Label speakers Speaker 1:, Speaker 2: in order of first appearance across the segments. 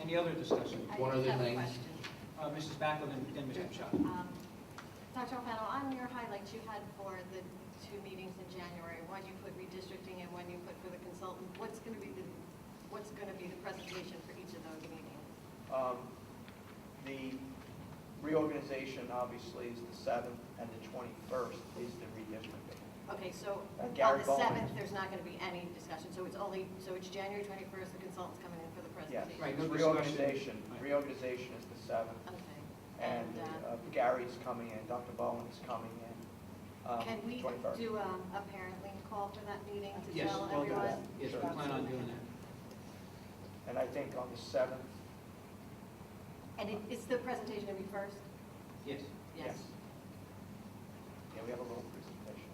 Speaker 1: Any other discussion?
Speaker 2: I
Speaker 3: One other
Speaker 2: have a
Speaker 3: thing.
Speaker 2: question.
Speaker 1: Uh, Mrs. Backlin and then Mr. Shaw.
Speaker 2: Um, Dr. O'Fennell, on your highlights you had for the two meetings in January, one you put redistricting and one you put for the consultant, what's going to be the, what's going to be the presentation for each of those meetings?
Speaker 4: Um, The reorganization, obviously, is the seventh, and the twenty-first is the redistricting.
Speaker 2: Okay, so
Speaker 4: Uh,
Speaker 2: on
Speaker 4: Gary
Speaker 2: the
Speaker 4: Bowman.
Speaker 2: seventh, there's not going to be any discussion, so it's only, so it's January twenty-first, the consultant's coming in for the
Speaker 4: Yes,
Speaker 2: presentation?
Speaker 1: Right, no
Speaker 4: it's
Speaker 1: discussion.
Speaker 4: reorganization,
Speaker 1: Right.
Speaker 4: reorganization is the seventh,
Speaker 2: Okay,
Speaker 4: and
Speaker 2: and uh,
Speaker 4: uh, Gary's coming in, Dr. Bowen is coming in, um,
Speaker 2: can we
Speaker 4: twenty-first.
Speaker 2: do um, a parent link call for that meeting to
Speaker 1: Yes,
Speaker 2: tell
Speaker 1: we'll do that.
Speaker 2: everyone?
Speaker 1: Yes, we plan on doing that.
Speaker 4: And I think on the seventh,
Speaker 2: And it- is the presentation going to be first?
Speaker 1: Yes,
Speaker 4: yes. Yeah, we have a little presentation.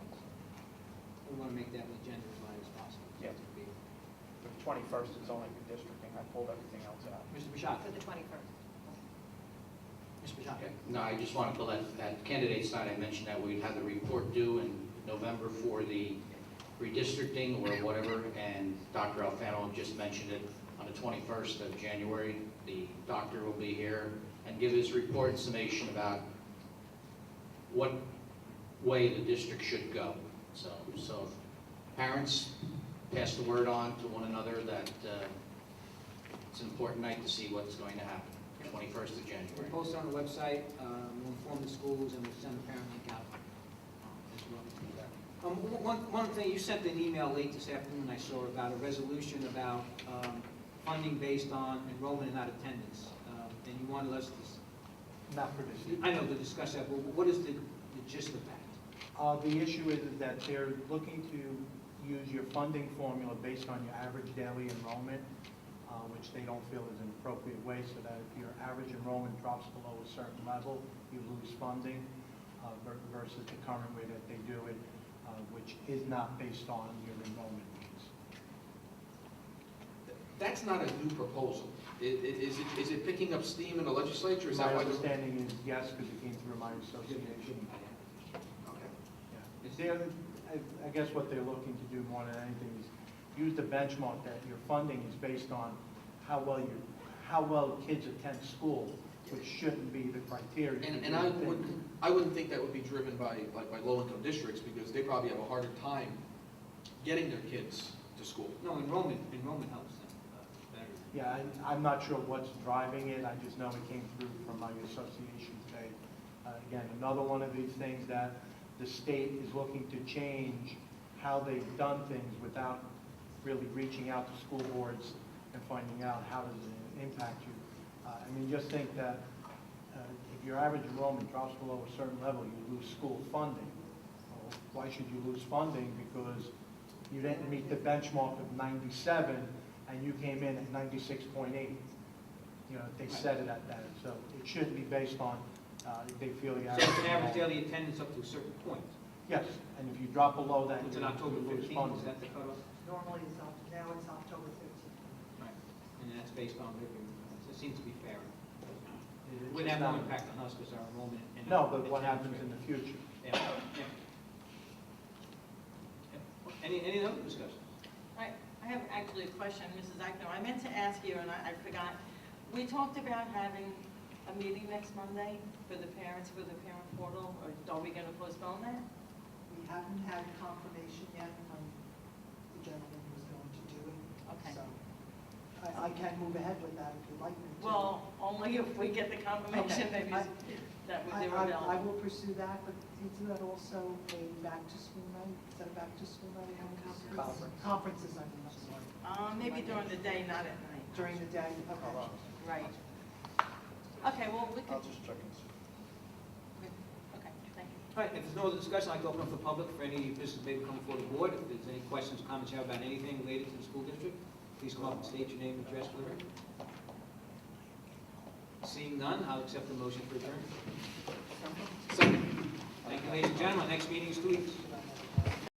Speaker 1: we want to make that agenda as light as possible.
Speaker 4: Yeah. The twenty-first is only redistricting, I pulled everything else out.
Speaker 1: Mr. Bashad,
Speaker 2: For the twenty-first?
Speaker 1: Mr. Bashad.
Speaker 3: No, I just want to pull that, that candidate's night, I mentioned that we'd have the report due in November for the redistricting or whatever, and Dr. Alfano just mentioned it on the 21st of January. The doctor will be here and give his report and summation about what way the district should go. So, so if parents pass the word on to one another that uh, it's an important night to see what's going to happen, 21st of January.
Speaker 1: We'll post it on the website, uh, we'll inform the schools, and we'll send a parent link out as well. Um, w- One, one thing, you sent an email late this afternoon, I saw, about a resolution about um, funding based on enrollment and not attendance. Um, And you wanted us to, s-
Speaker 5: Not for this year.
Speaker 1: I know, to discuss that, but what is the the gist of that?
Speaker 5: Uh, the issue is, is that they're looking to use your funding formula based on your average daily enrollment, uh, which they don't feel is an appropriate way, so that if your average enrollment drops below a certain level, you lose funding, uh, ver- versus the current way that they do it, uh, which is not based on your enrollment needs.
Speaker 6: That's not a new proposal. I- i- Is it, is it picking up steam in the legislature? Is
Speaker 5: My
Speaker 6: that why? the-
Speaker 5: understanding is yes, because it came through my association.
Speaker 6: Okay.
Speaker 5: Yeah. Is there, I- I guess what they're looking to do more than anything is use the benchmark that your funding is based on how well you, how well kids attend school, which shouldn't be the criteria.
Speaker 6: And, and I wouldn't, I wouldn't think that would be driven by, like, by low-income districts, because they probably have a harder time getting their kids to school.
Speaker 1: No, enrollment, enrollment helps them uh, better.
Speaker 5: Yeah, I- I'm not sure what's driving it, I just know it came through from my association today. Uh, Again, another one of these things that the state is looking to change how they've done things without really reaching out to school boards and finding out how does it impact you. Uh, I mean, just think that uh, if your average enrollment drops below a certain level, you lose school funding. Well, Why should you lose funding? Because you didn't meet the benchmark of 97, and you came in at 96.8. You know, they set it at that, so it shouldn't be based on, uh, if they feel you
Speaker 1: So
Speaker 5: have.
Speaker 1: it's an average daily attendance up to a certain point,
Speaker 5: Yes, and if you drop below that,
Speaker 1: which
Speaker 5: you
Speaker 1: in October
Speaker 5: you lose
Speaker 1: 15th,
Speaker 5: funding.
Speaker 1: is that the cutoff?
Speaker 7: Normally it's, Oct- now it's October 15th.
Speaker 1: Right, and that's based on, revenue. it seems to be fair.
Speaker 5: It-
Speaker 1: It
Speaker 5: it's
Speaker 1: Wouldn't have no
Speaker 5: not-
Speaker 1: impact on us because our enrollment. and
Speaker 5: No,
Speaker 1: our
Speaker 5: but what
Speaker 1: attendance
Speaker 5: happens in the future?
Speaker 1: rate. Yeah, yeah. Yeah. Any, any other discussion?
Speaker 8: I, I have actually a question, Mrs. Ackno. I meant to ask you, and I, I forgot. We talked about having a meeting next Monday for the parents, for the parent portal, or are we gonna postpone that?
Speaker 7: We haven't had confirmation yet from the gentleman who's going to do it.
Speaker 8: Okay.
Speaker 7: So I, I can move ahead with that if you'd like me to.
Speaker 8: Well, only if we get the confirmation
Speaker 7: Okay.
Speaker 8: maybe
Speaker 7: I-
Speaker 8: that
Speaker 7: I,
Speaker 8: they were
Speaker 7: I
Speaker 8: available.
Speaker 7: I will pursue that, but isn't that also a back-to-school night? Is that a back-to-school night?
Speaker 4: Conference.
Speaker 7: Conferences, I mean, I'm sorry.
Speaker 8: Uh, maybe during the day, not at night.
Speaker 7: During the day,
Speaker 4: Hold
Speaker 7: okay.
Speaker 4: on.
Speaker 8: Right. Okay, well, we could,
Speaker 4: I'll just check and see.
Speaker 8: okay, thank you.
Speaker 1: All right, if there's no other discussion, I'd like to open up the public for any business that may come before the board. If there's any questions, comments you have about anything related to the school district, please come up and state your name and address for the record. Seeing none, I'll accept the motion for adjournment.
Speaker 6: Second.
Speaker 1: Thank you, ladies and gentlemen. Next meeting is two weeks.